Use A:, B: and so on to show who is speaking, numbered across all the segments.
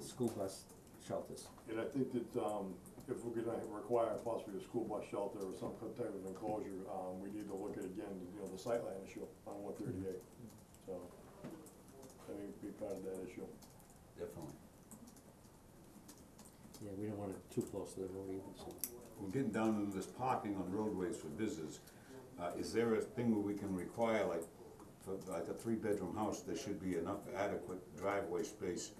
A: school bus shelters.
B: And I think that, um, if we're gonna require possibly a school bus shelter or some type of enclosure, um, we need to look at again, you know, the sightline issue on one thirty-eight. So, I think it'd be part of that issue.
C: Definitely.
A: Yeah, we don't want it too close to the road either, so.
C: We're getting down into this parking on roadways for business. Uh, is there a thing where we can require, like, for like a three-bedroom house, there should be enough adequate driveway space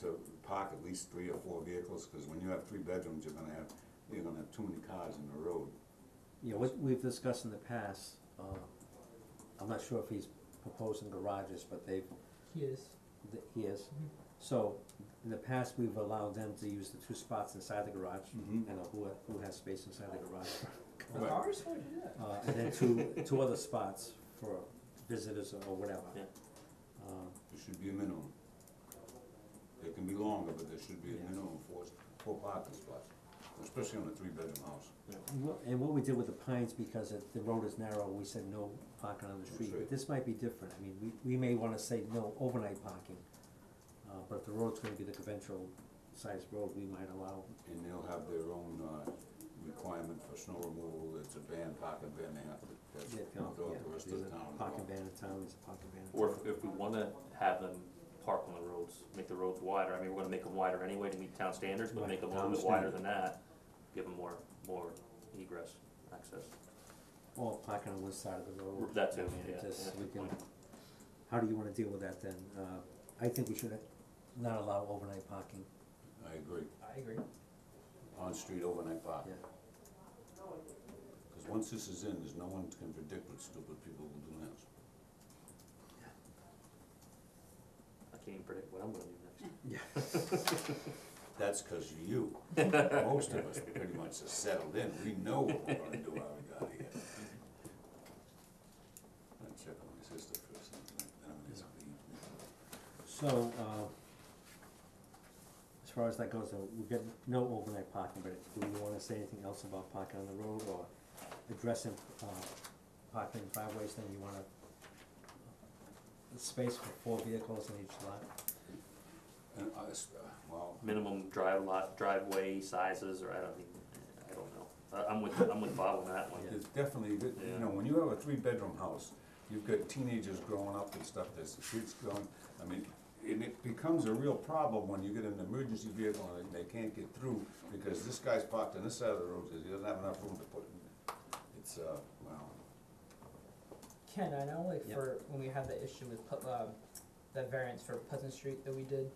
C: to park at least three or four vehicles, cause when you have three bedrooms, you're gonna have, you're gonna have too many cars in the road.
A: Yeah, what we've discussed in the past, uh, I'm not sure if he's proposing garages, but they've,
D: He is.
A: th- he is.
D: Mhm.
A: So, in the past, we've allowed them to use the two spots inside the garage,
C: Mhm.
A: and who, who has space inside the garage.
C: Right.
D: Cars, why do that?
A: Uh, and then two, two other spots for visitors or whatever.
E: Yeah.
A: Um,
C: There should be a minimum. They can be longer, but there should be a
A: Yeah.
C: minimum for, for parking spots, especially on a three-bedroom house.
A: And what- And what we did with the pines, because it, the road is narrow, we said no parking on the
C: That's
A: street,
C: right.
A: but this might be different, I mean, we, we may wanna say no overnight parking. Uh, but if the road's gonna be the conventional size road, we might allow,
C: And they'll have their own, uh, requirement for snow removal, it's a ban, parking ban, they have to, that's,
A: yeah,
C: throughout the rest of
A: there's
C: the
A: a
C: town.
A: parking ban in town, there's a parking ban in town.
E: Or if, if we wanna have them park on the roads, make the roads wider, I mean, we're gonna make them wider anyway to meet town standards, but
A: Right,
E: make them a
C: town
E: little bit wider than that, give them more, more egress access.
A: Or parking on one side of the road.
E: That too,
A: I mean, it
E: yeah,
A: just-
E: that's a
A: we
E: good
A: can-
E: point.
A: How do you wanna deal with that then, uh, I think we should not allow overnight parking,
C: I agree,
D: I agree.
C: on-street overnight parking,
A: yeah,
C: cause once this is in, there's no one can predict what stupid people will do next.
E: I can't even predict what I'm gonna do next.
A: yeah.
C: That's cause of you, most of us pretty much are settled in, we know what we're gonna do out of God here. I'll check on my sister for something, I'm gonna just
A: So, uh, as far as that goes, though, we get no overnight parking, but do we wanna say anything else about parking on the road or addressing, uh, parking in driveways, then you wanna a space for four vehicles in each lot?
C: And I, s- uh, well,
E: Minimum drive lot, driveway sizes, or I don't even, I don't know, I, I'm with, I'm with Bob on that one.
C: It's definitely, th- you know, when you have a three-bedroom house, you've got teenagers growing up and stuff, there's the kids going, I mean, and it becomes a real problem when you get an emergency vehicle and they can't get through, because this guy's parked on this side of the road, he doesn't have enough room to put in. It's, uh, well,
D: Ken, I know like
A: Yep.
D: for when we had the issue with Put, um, the variance for Pleasant Street that we did,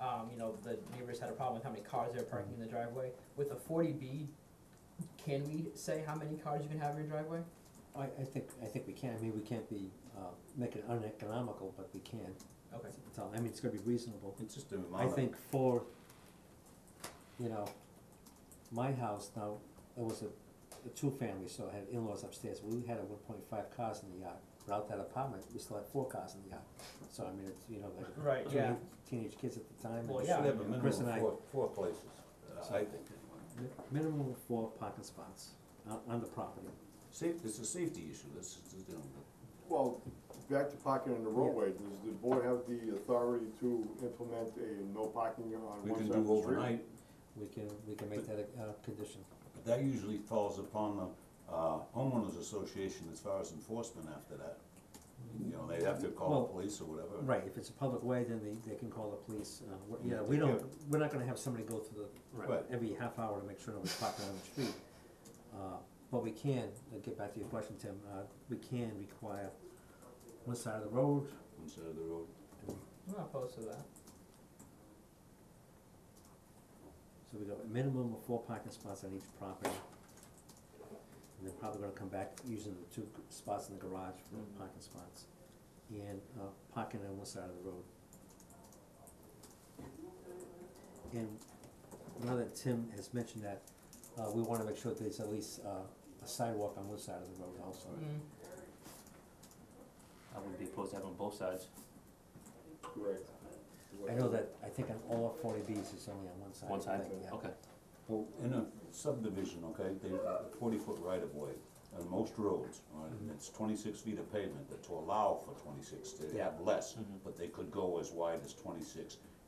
D: um, you know, the neighbors had a problem with how many cars they were parking in the driveway. With a forty B, can we say how many cars you can have in your driveway?
A: I, I think, I think we can, I mean, we can't be, uh, make it uneconomical, but we can,
D: Okay,
A: it's all, I mean, it's gonna be reasonable.
C: it's just a amount
A: I
C: of-
A: think for, you know, my house now, it was a, a two-family, so I had in-laws upstairs, we had a one point five cars in the yard. But out that apartment, we still had four cars in the yard, so I mean, it's, you know, like
D: right,
A: two
D: yeah,
A: teenage kids at the time,
D: Well,
A: and
C: Should have
D: yeah.
C: a minimum
A: Chris and
C: of
A: I-
C: four, four places, uh,
A: So-
C: I think, anyway.
A: mi- minimum of four parking spots on, on the property.
C: Safe, it's a safety issue, that's, you know,
B: Well, back to parking on the roadway, does the board have the authority to implement a no parking on
C: we
B: one
C: can
B: side of
C: do
B: the street?
C: overnight,
A: We can, we can make that a, uh condition.
C: But that usually falls upon the uh, homeowners association as far as enforcement after that. You know, they'd have to call
A: Well,
C: the police or whatever.
A: Right, if it's a public way, then they, they can call the police, uh, we're- yeah,
C: Yeah,
A: we don't,
C: yeah.
A: we're not gonna have somebody go through the,
C: Right.
A: every half hour to make sure nobody's parking on the street. Uh, but we can, uh, get back to your question, Tim, uh, we can require one side of the road,
C: One side of the road.
D: I'm not opposed to that.
A: so we go a minimum of four parking spots on each property. And they're probably gonna come back using the two g- spots in the garage for
E: Mhm.
A: parking spots, and, uh, parking on one side of the road. And now that Tim has mentioned that, uh, we wanna make sure there's at least, uh, a sidewalk on one side of the road also.
E: Mm-hmm.
D: Mm,
E: I wouldn't be opposed to having them both sides.
B: Correct.
A: I know that, I think on all forty Bs, it's only on one side.
E: One
A: I
E: side,
A: think, yeah.
E: Okay,
C: Well, in a subdivision, okay, they, forty-foot right-of-way, on most roads, all right,
A: Mm-hmm.
C: and it's twenty-six feet of pavement, that to allow for twenty-six, they have less,
A: Mm-hmm.
E: Mhm.
C: but they could go as wide as twenty-six.